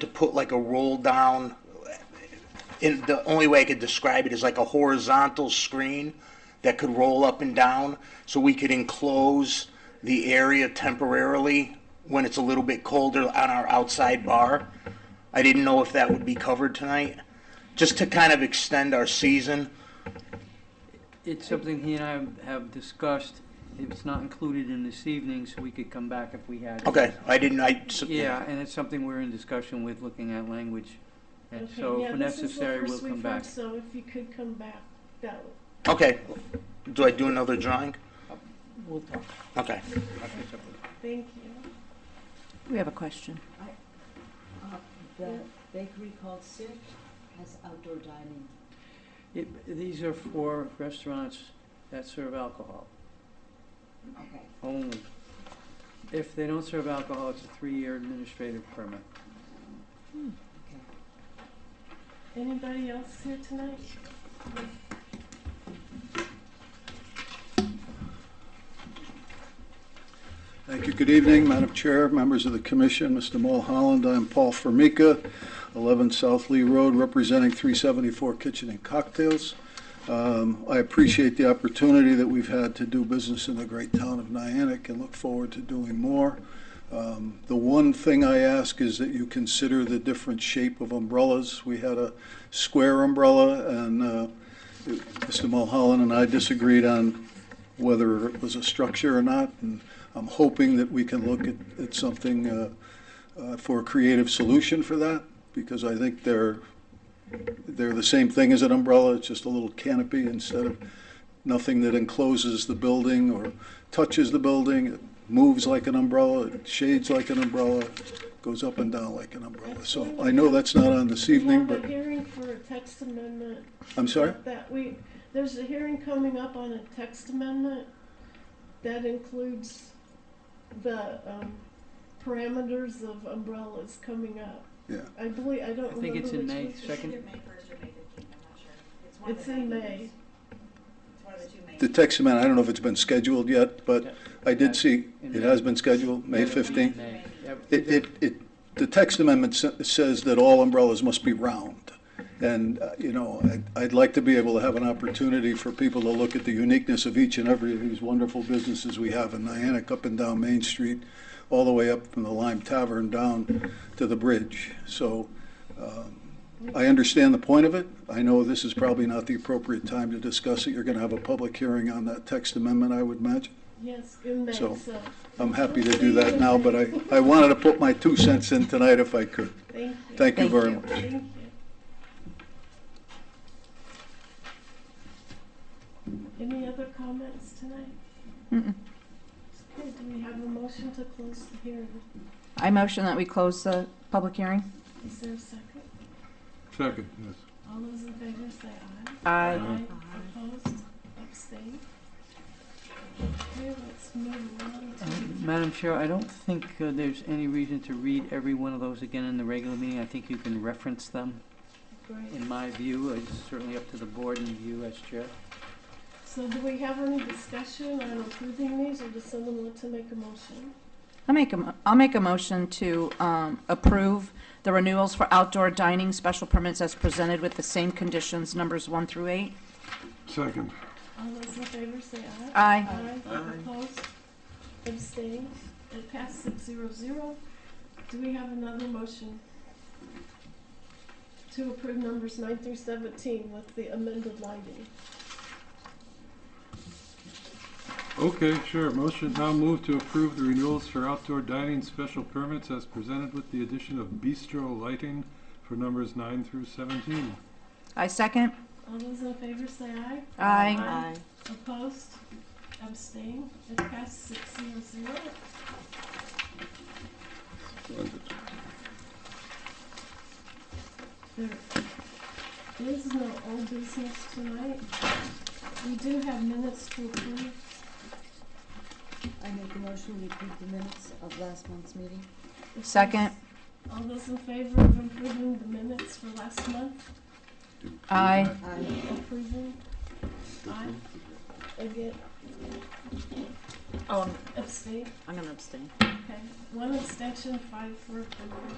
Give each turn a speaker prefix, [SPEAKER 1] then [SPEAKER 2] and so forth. [SPEAKER 1] to put like a roll down, in, the only way I could describe it is like a horizontal screen that could roll up and down, so we could enclose the area temporarily when it's a little bit colder on our outside bar. I didn't know if that would be covered tonight, just to kind of extend our season.
[SPEAKER 2] It's something he and I have discussed. It's not included in this evening, so we could come back if we had. it.
[SPEAKER 1] Okay, I didn't, I.
[SPEAKER 2] Yeah, and it's something we're in discussion with, looking at language. And
[SPEAKER 3] Okay,
[SPEAKER 2] so
[SPEAKER 3] yeah,
[SPEAKER 2] if
[SPEAKER 3] this is the
[SPEAKER 2] necessary,
[SPEAKER 3] first
[SPEAKER 2] we'll
[SPEAKER 3] we've
[SPEAKER 2] come
[SPEAKER 3] heard,
[SPEAKER 2] back.
[SPEAKER 3] So if you could come back, that would.
[SPEAKER 1] Okay, do I do another drawing?
[SPEAKER 2] We'll talk.
[SPEAKER 1] Okay.
[SPEAKER 2] about this up.
[SPEAKER 3] Thank you.
[SPEAKER 4] We have a question.
[SPEAKER 5] Uh, The bakery called Sirk has outdoor dining.
[SPEAKER 2] It- These are for restaurants that serve alcohol
[SPEAKER 5] Okay.
[SPEAKER 2] only. If they don't serve alcohol, it's a three-year administrative permit.
[SPEAKER 5] Okay.
[SPEAKER 3] Anybody else here tonight?
[SPEAKER 6] Thank you. Good evening, Madam Chair, members of the commission, Mr. Mulholland. I'm Paul Formica, 11 South Lee Road, representing 374 Kitchen and Cocktails. Um, I appreciate the opportunity that we've had to do business in the great town of Niantic and look forward to doing more. Um, The one thing I ask is that you consider the different shape of umbrellas. We had a square umbrella, and uh, Mr. Mulholland and I disagreed on whether it was a structure or not, and I'm hoping that we can look at, at something uh, uh, for a creative solution for that, because I think they're, they're the same thing as an umbrella, it's just a little canopy instead of nothing that encloses the building or touches the building, it moves like an umbrella, it shades like an umbrella, goes up and down like an umbrella. So I know that's not on this evening,
[SPEAKER 3] We
[SPEAKER 6] but,
[SPEAKER 3] have a hearing for a text amendment.
[SPEAKER 6] I'm sorry?
[SPEAKER 3] That we, there's a hearing coming up on a text amendment that includes the, um, parameters of umbrellas coming up.
[SPEAKER 6] Yeah.
[SPEAKER 3] I believe, I don't
[SPEAKER 2] I think
[SPEAKER 3] remember
[SPEAKER 2] it's in
[SPEAKER 3] which
[SPEAKER 2] May
[SPEAKER 3] was-
[SPEAKER 2] second.
[SPEAKER 7] Either May first or May fifteenth, I'm not sure. It's one of
[SPEAKER 3] It's
[SPEAKER 7] the
[SPEAKER 3] in
[SPEAKER 7] meetings.
[SPEAKER 3] May.
[SPEAKER 7] It's one of the two May.
[SPEAKER 6] The text amendment, I don't know if it's been scheduled yet, but I did see, it has been scheduled, May
[SPEAKER 2] Yeah, it'll be in
[SPEAKER 6] 15th.
[SPEAKER 2] May. Yep.
[SPEAKER 6] It, it, it, the text amendment sa- says that all umbrellas must be round. And, uh, you know, I'd, I'd like to be able to have an opportunity for people to look at the uniqueness of each and every of these wonderful businesses we have in Niantic, up and down Main Street, all the way up from the Lime Tavern down to the bridge. So, um, I understand the point of it. I know this is probably not the appropriate time to discuss it. You're gonna have a public hearing on that text amendment, I would imagine.
[SPEAKER 3] Yes, in May,
[SPEAKER 6] So-
[SPEAKER 3] so,
[SPEAKER 6] I'm happy to do that now, but I, I wanted to put my two cents in tonight if I could.
[SPEAKER 3] thank you.
[SPEAKER 6] Thank you
[SPEAKER 4] Thank
[SPEAKER 6] very
[SPEAKER 4] you.
[SPEAKER 6] much.
[SPEAKER 3] Thank you. Any other comments tonight?
[SPEAKER 4] Mm-mm.
[SPEAKER 3] Okay, do we have a motion to close the hearing?
[SPEAKER 4] I motion that we close the public hearing.
[SPEAKER 3] Is there a second?
[SPEAKER 8] Second, yes.
[SPEAKER 3] All those in favor say aye.
[SPEAKER 4] Aye.
[SPEAKER 3] Opposed, abstained? Okay, let's move on
[SPEAKER 2] Uh,
[SPEAKER 3] to,
[SPEAKER 2] Madam Chair, I don't think uh, there's any reason to read every one of those again in the regular meeting. I think you can reference them,
[SPEAKER 3] great.
[SPEAKER 2] in my view. It's certainly up to the board and you as chair.
[SPEAKER 3] So do we have any discussion on approving these, or does someone want to make a motion?
[SPEAKER 4] I make a, mo- I'll make a motion to um, approve the renewals for outdoor dining special permits as presented with the same conditions, numbers one through eight.
[SPEAKER 8] Second,
[SPEAKER 3] All those in favor say aye.
[SPEAKER 4] Aye.
[SPEAKER 3] Aye. Opposed? Abstained? It passed six zero zero. Do we have another motion? To approve numbers nine through seventeen with the amended lighting.
[SPEAKER 8] okay, sure. Motion now move to approve the renewals for outdoor dining special permits as presented with the addition of bistro lighting for numbers nine through seventeen.
[SPEAKER 4] I second.
[SPEAKER 3] All those in favor say aye.
[SPEAKER 4] Aye.
[SPEAKER 3] Opposed? Abstained? It passed six zero zero. There is no old business tonight. We do have minutes to approve.
[SPEAKER 5] I make a motion, we approve the minutes of last month's meeting.
[SPEAKER 4] Second.
[SPEAKER 3] All those in favor of approving the minutes for last month,
[SPEAKER 4] Aye.
[SPEAKER 5] Aye.
[SPEAKER 3] approving? Aye. Again,
[SPEAKER 4] Oh,
[SPEAKER 3] abstain?
[SPEAKER 4] I'm gonna abstain.
[SPEAKER 3] Okay. One abstention, five for approval.